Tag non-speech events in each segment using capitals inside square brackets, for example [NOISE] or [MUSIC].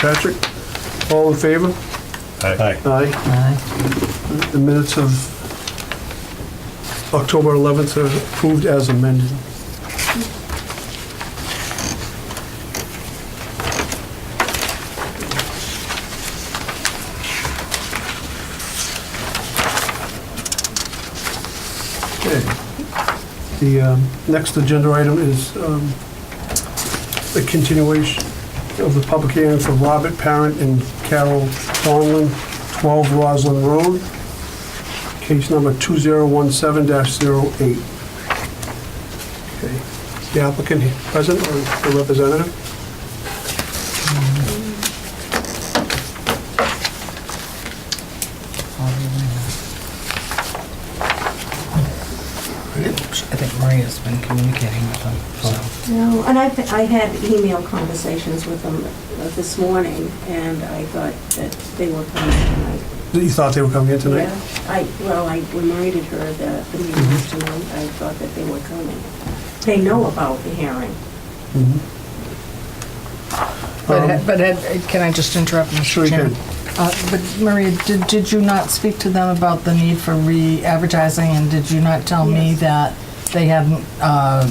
Patrick, all in favor? Aye. Aye. Aye. The minutes of October 11th are approved as amended. Okay. The um, next agenda item is um, the continuation of the public hearing for Robert Parent and Carol Donlin, 12 Roslin Road, case number 2017-08. Okay. The applicant here present or the representative? I think Maria's been communicating with them, so. No, and I, I had email conversations with them uh, this morning, and I thought that they were coming tonight. You thought they were coming in tonight? Yeah, I, well, I reminded her that the meeting was Mm-hmm. tonight, I thought that they were coming. They know about the hearing. Mhm. But, Um, Ed- but Ed, can I just interrupt, Sure you Mr. Chairman? Uh, But Maria, did, did you not speak to them about the need for re-advertising, and did you not tell me Yes. that they hadn't uh,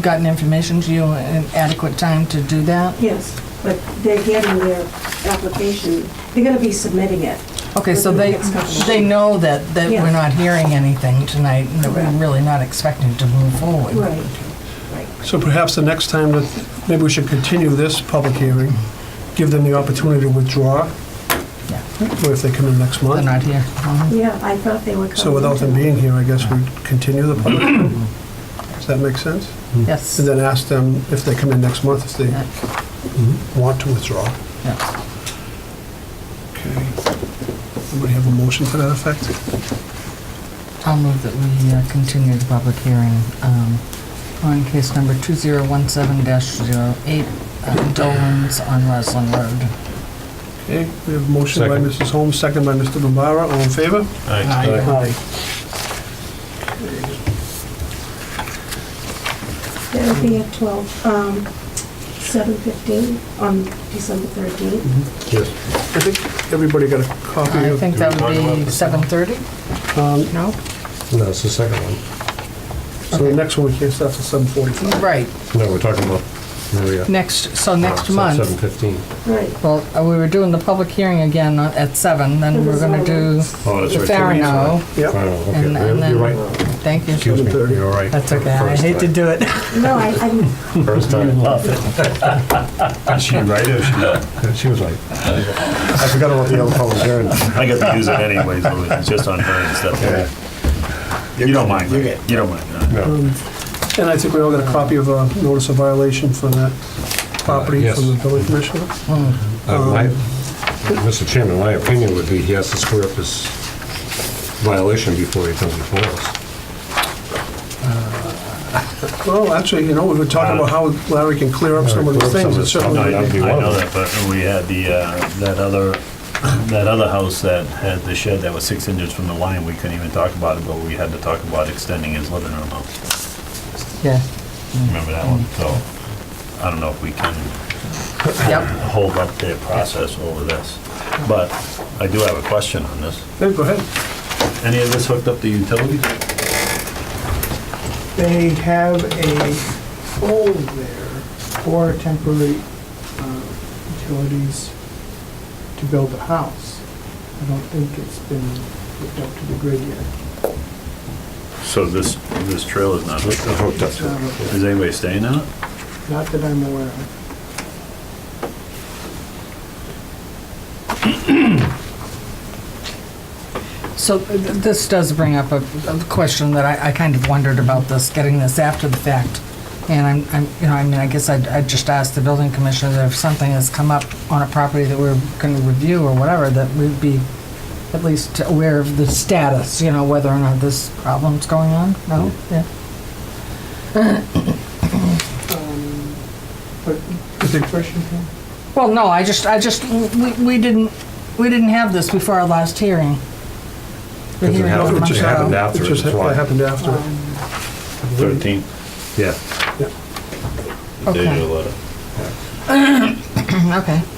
gotten information to you in adequate time to do that? Yes, but they're getting their application, they're gonna be submitting it. Okay, so they, they know that, that we're Yeah. not hearing anything tonight, and that Correct. we're really not expecting to move forward. right. So perhaps the next time that, maybe we should continue this public hearing, give them the opportunity to withdraw, Yeah. or if they come in next They're month. not here. Yeah, I thought they were coming. Hmm. So without them being here, I guess we continue the public hearing? Does that make sense? Yes. And then ask them if they come in next month, if Yeah. they want to withdraw. Yeah. Okay. Anybody have a motion to that effect? I'll move that we uh, continue the public hearing um, on case number 2017-08, uh, Dolan's on Roslin Road. Okay, we have a motion by Second. Mrs. Holmes, second by Mr. Bombara, all in favor? Aye. Aye. They'll be at twelve, um, seven fifteen on December thirteenth. Yes. I think everybody got a copy I of, think that would be 7:30? um, No? No, it's the second one. so the next one, we can't start till 7:45. Right, No, we're talking about, there we are. next, so next Seven month. fifteen. Hmm. Right. Well, uh, we were doing the public hearing again on- at 7, then we're going to do Oh, that's the right. Farino. Oh, Yep, okay, And- and you're then- you're right. Thank you. Excuse me, you're right. That's okay, I hate to do it. No, I, I, First [LAUGHS] time. Is she right or she She was right. I forgot about the other public hearing. I get to use it anyways, so it's just on her and Yeah. stuff. You don't mind, right? you don't mind. no. Um, No. and I think we all got a copy of a notice of violation for that property Uh, yes. from the building commissioner. Uh, my- um, Mr. Chairman, my opinion would be he has to square up his violation before he comes before us. Well, actually, you know, we were talking about how Larry can clear up some of Clear these up some things, of it's this. certainly, That'd be I one of know them. that, but we had the, uh, that other, [COUGHS] that other house that had the shed that was six inches from the line, we couldn't even talk about it, but we had to talk about extending his living room out. Yeah, Remember that one? So I don't know if we can yep. hold up their process over this. But I do have a question on this. Hey, go ahead. Any of this hooked up to utilities? They have a hole there for temporary uh, utilities to build a house. I don't think it's been hooked up to the grid yet. So this, this trail is not hooked up. Hooked up It's to not it. hooked Is anybody staying in it? up. Not that I'm aware of. So th- this does bring up a a question that I I kind of wondered about this, getting this after the fact. And I'm- I'm, you know, I mean, I guess I'd I'd just ask the building commissioner that if something has come up on a property that we're going to review or whatever, that we'd be at least aware of the status, you know, whether or not this problem's going on. No? Mm-hmm. Yeah. Um, But, Is it- question, Ken? Well, no, I just, I just, we we didn't, we didn't have this before our last hearing. The Doesn't hearing happen. a It month just It ago. happened after, It just that's ha- why. happened after. Thirteenth. Yeah. Mm-hmm, Okay, okay.